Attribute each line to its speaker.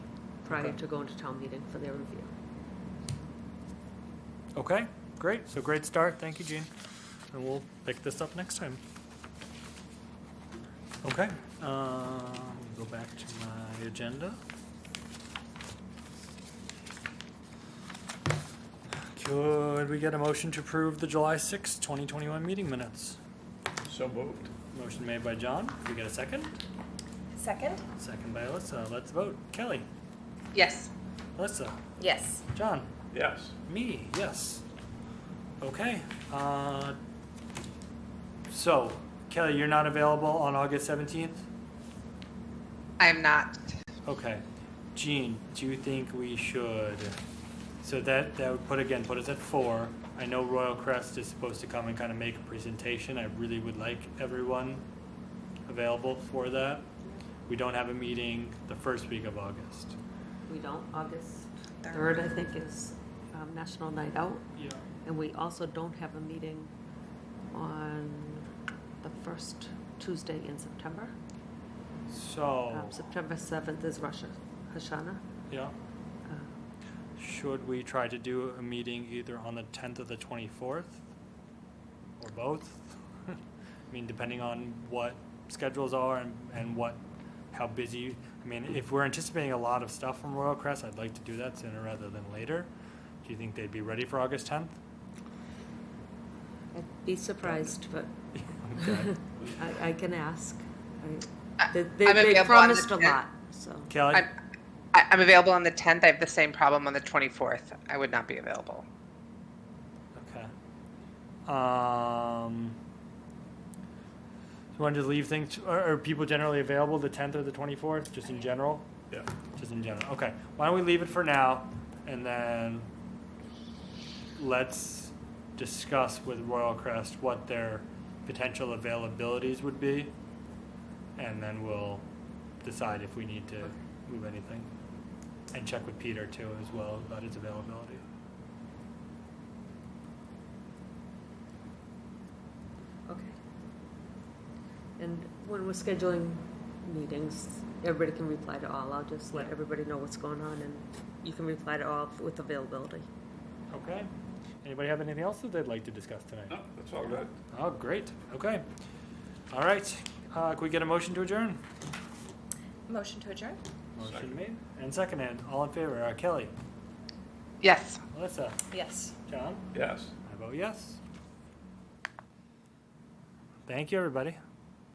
Speaker 1: prior
Speaker 2: Okay.
Speaker 1: to going to town meeting for their review.
Speaker 2: Okay, great. So great start. Thank you, Gene. And we'll pick this up next time. Okay, um, go back to my agenda. Could we get a motion to approve the July sixth, twenty twenty-one meeting minutes?
Speaker 3: So moved.
Speaker 2: Motion made by John. Could we get a second?
Speaker 4: Second?
Speaker 2: Second by Alyssa. Let's vote. Kelly,
Speaker 1: Yes.
Speaker 2: Alyssa,
Speaker 4: Yes.
Speaker 2: John.
Speaker 3: Yes.
Speaker 2: Me, yes. Okay, uh, so Kelly, you're not available on August seventeenth?
Speaker 5: I am not.
Speaker 2: Okay. Gene, do you think we should, so that, that would put, again, put us at four. I know Royal Crest is supposed to come and kind of make a presentation. I really would like everyone available for that. We don't have a meeting the first week of August.
Speaker 1: We don't, August 3rd, I think, is um, National Night Out.
Speaker 2: Yeah.
Speaker 1: And we also don't have a meeting on the first Tuesday in September.
Speaker 2: So, Oh.
Speaker 1: Um, September 7th is Rosh Hashanah.
Speaker 2: yeah.
Speaker 1: Uh,
Speaker 2: Should we try to do a meeting either on the tenth or the twenty-fourth? Or both? I mean, depending on what schedules are and, and what, how busy, I mean, if we're anticipating a lot of stuff from Royal Crest, I'd like to do that sooner rather than later. Do you think they'd be ready for August tenth?
Speaker 1: I'd be surprised, but
Speaker 2: Okay.
Speaker 1: I, I can ask. I-
Speaker 5: I-
Speaker 1: They,
Speaker 5: I'm
Speaker 1: they- they
Speaker 5: available on the
Speaker 1: promised a
Speaker 5: 10th.
Speaker 1: lot, so.
Speaker 2: Kelly,
Speaker 5: I'm, I- I'm available on the 10th. I have the same problem on the 24th. I would not be available.
Speaker 2: okay. Um, do you want to just leave things, are, are people generally available the tenth or the twenty-fourth, just in general?
Speaker 3: Yeah.
Speaker 2: Just in general. Okay. Why don't we leave it for now and then let's discuss with Royal Crest what their potential availabilities would be. And then we'll decide if we need to move anything. And check with Peter too as well about his availability.
Speaker 1: Okay. And when we're scheduling meetings, everybody can reply to all. I'll just let
Speaker 2: Yeah.
Speaker 1: everybody know what's going on, and you can reply to all with availability.
Speaker 2: Okay. Anybody have anything else that they'd like to discuss tonight?
Speaker 3: No, that's all good.
Speaker 2: Oh, great. Okay. All right. Uh, can we get a motion to adjourn?
Speaker 4: Motion to adjourn?
Speaker 2: Motion
Speaker 3: Second.
Speaker 2: made and seconded. All in favor? Uh, Kelly,
Speaker 5: Yes.
Speaker 2: Melissa,
Speaker 4: Yes.
Speaker 2: John.
Speaker 3: Yes.
Speaker 2: I vote yes. Thank you, everybody.